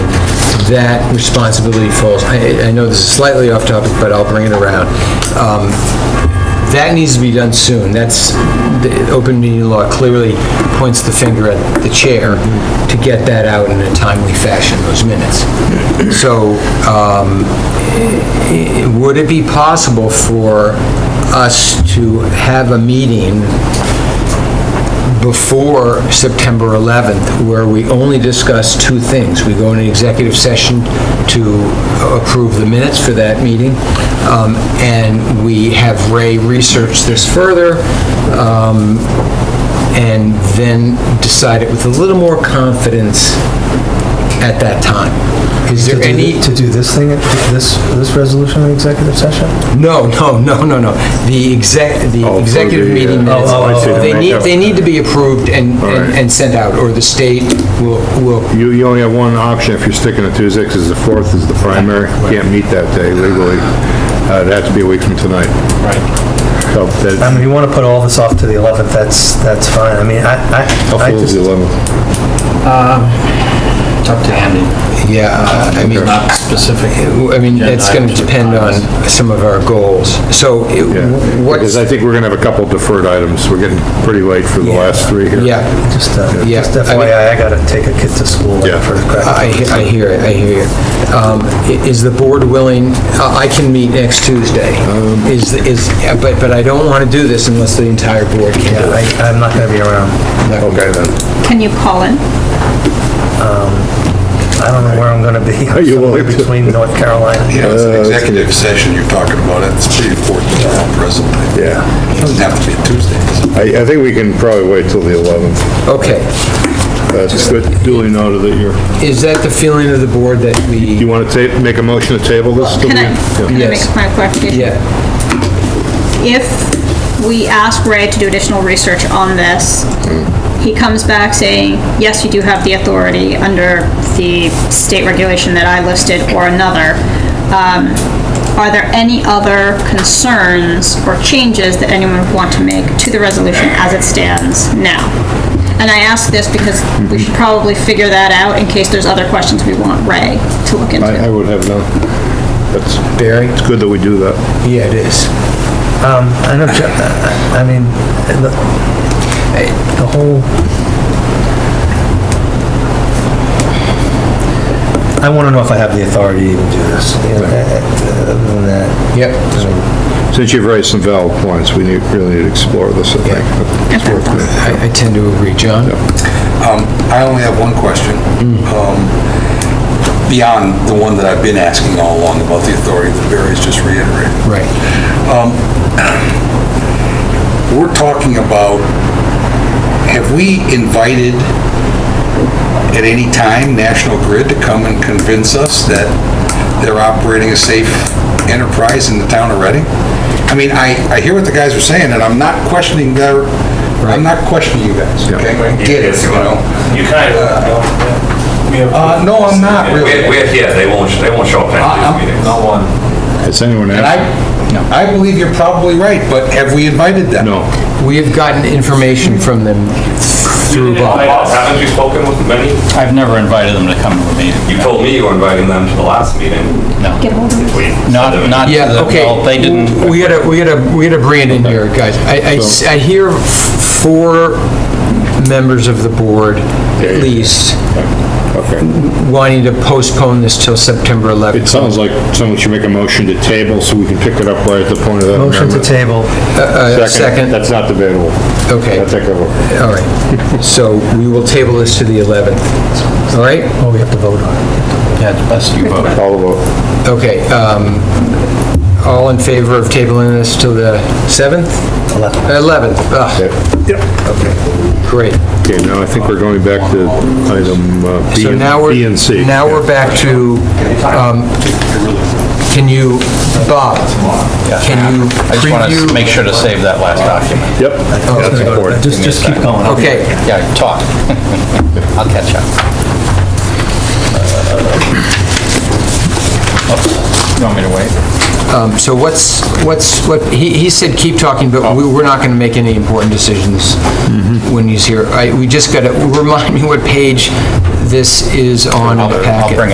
that responsibility falls, I, I know this is slightly off topic, but I'll bring it around. Um, That needs to be done soon. That's, the open meeting law clearly points the finger at the chair to get that out in a timely fashion, those minutes. So, um, i- would it be possible for us to have a meeting before September 11th, where we only discuss two things. We go into executive session to approve the minutes for that meeting, um, and we have Ray research this further, um, and then decide it with a little more confidence at that time. Is To there do any... th- To do this thing, this, this resolution in executive session? No, no, no, no, no. The exec, the Oh, for executive the, uh, meeting oh, minutes, oh, I see. they need, they need to be approved and, All and right. and sent out, or the state will, will, You, you only have one option if you're sticking to Tuesday, because the 4th is the primary. Can't meet that day legally. Uh, It'd have to be a week from tonight. Right. So I that, mean, if you want to put all this off to the 11th, that's, that's fine. I mean, I, how I, I full is just, the 11th? It's up to Andy, yeah, uh, I mean, not specific. I mean, it's gonna depend on some of our goals. So it- Yeah. Because what's, I think we're going to have a couple deferred items. We're getting pretty late for the last three here. yeah, just, uh, Yeah, just I mean- FYI, I gotta take a kid to school Yeah. for I, practical. I hear it, I hear you. Um, i- Is the board willing, I I can meet next Tuesday, Um. is, is, yeah, but, but I don't wanna do this unless the entire board can Yeah, do it. I, I'm not gonna be around. Okay, then. Can you call in? I don't know where I'm gonna be. Are you Somewhere willing to- Between North Carolina. You know, it's an executive session you're talking about, it's pretty important to help resume. Yeah. It doesn't have to be Tuesday, does it? I, I think we can probably wait till the Uh, 11th. Okay, That's good. duly noted that you're, is that the feeling of the board that we? you want to ta, make a motion to table this? till Can I, we- can yeah. I Yes. make a point of clarification? Yeah, If we ask Ray to do additional research on this, he comes back saying, yes, you do have the authority under the state regulation that I listed or another. Um, Are there any other concerns or changes that anyone would want to make to the resolution as it stands now? And I ask this because we should probably figure that out in case there's other questions we want Ray to look into. I, I would have none. That's, Barry? it's good that we do that. Yeah, it is. Um, I know, Je- I I mean, the, the whole... I want to know if I have the authority to even do this. you know, uh, Other than that, Yep. Since you've raised some valid points, we need, really need to explore this, I think. It's worth it. I I tend to agree, John. Um, I only have one question, um, beyond the one that I've been asking all along about the authority that Barry's just reiterated. Right. We're talking about, have we invited at any time National Grid to come and convince us that they're operating a safe enterprise in the town of Reading? I mean, I, I hear what the guys are saying, and I'm not questioning their, I'm not questioning you guys, okay? I Get it, you know? You kind of. Uh, no, I'm not really. Uh-huh. We're, we're here, they won't, they won't show up I- at I'm- these meetings. No one. Has anyone And I, asked? I believe you're probably right, but have we invited them? No. We have gotten information from them through Bob. Haven't you spoken with many? I've never invited them to come to a meeting. You told me you were inviting them to the last meeting. No. Get hold of him. We- Not, not to Yeah, the, okay. well, they didn't. We gotta, we gotta, we gotta bring it in here, guys. I- I, s- I hear f- four members of the board, Yeah, yeah, at yeah. least, Okay. wanting to postpone this till September It 11th. sounds like someone should make a motion to table so we can pick it up right at the point of that motion to amendment. table. Uh, Second, That's not debatable. Okay. That's like a- all right. So we will table this to the 11th, all right? Oh, we have to vote on it. Yeah, it's best you vote. all vote. Okay, um, all in favor of tabling this till the 7th? 11th. 11th, ah, great. Okay, now I think we're going back to item uh, B So now and- B and we're, C. now we're back to, um, can you, Bob, can you I just want preview? to make sure to save that last document. Yep, Oh, that's important. Just, just keep going. I'll- Okay, Yeah, talk. I'll catch up. Uh, Oops, You want me to wait? um, so what's, what's, what, he, he said keep talking, but we, we're not gonna make any important decisions Mm-hmm. when he's here. I, we just gotta, remind me what page this is on in I'll the I'll packet. bring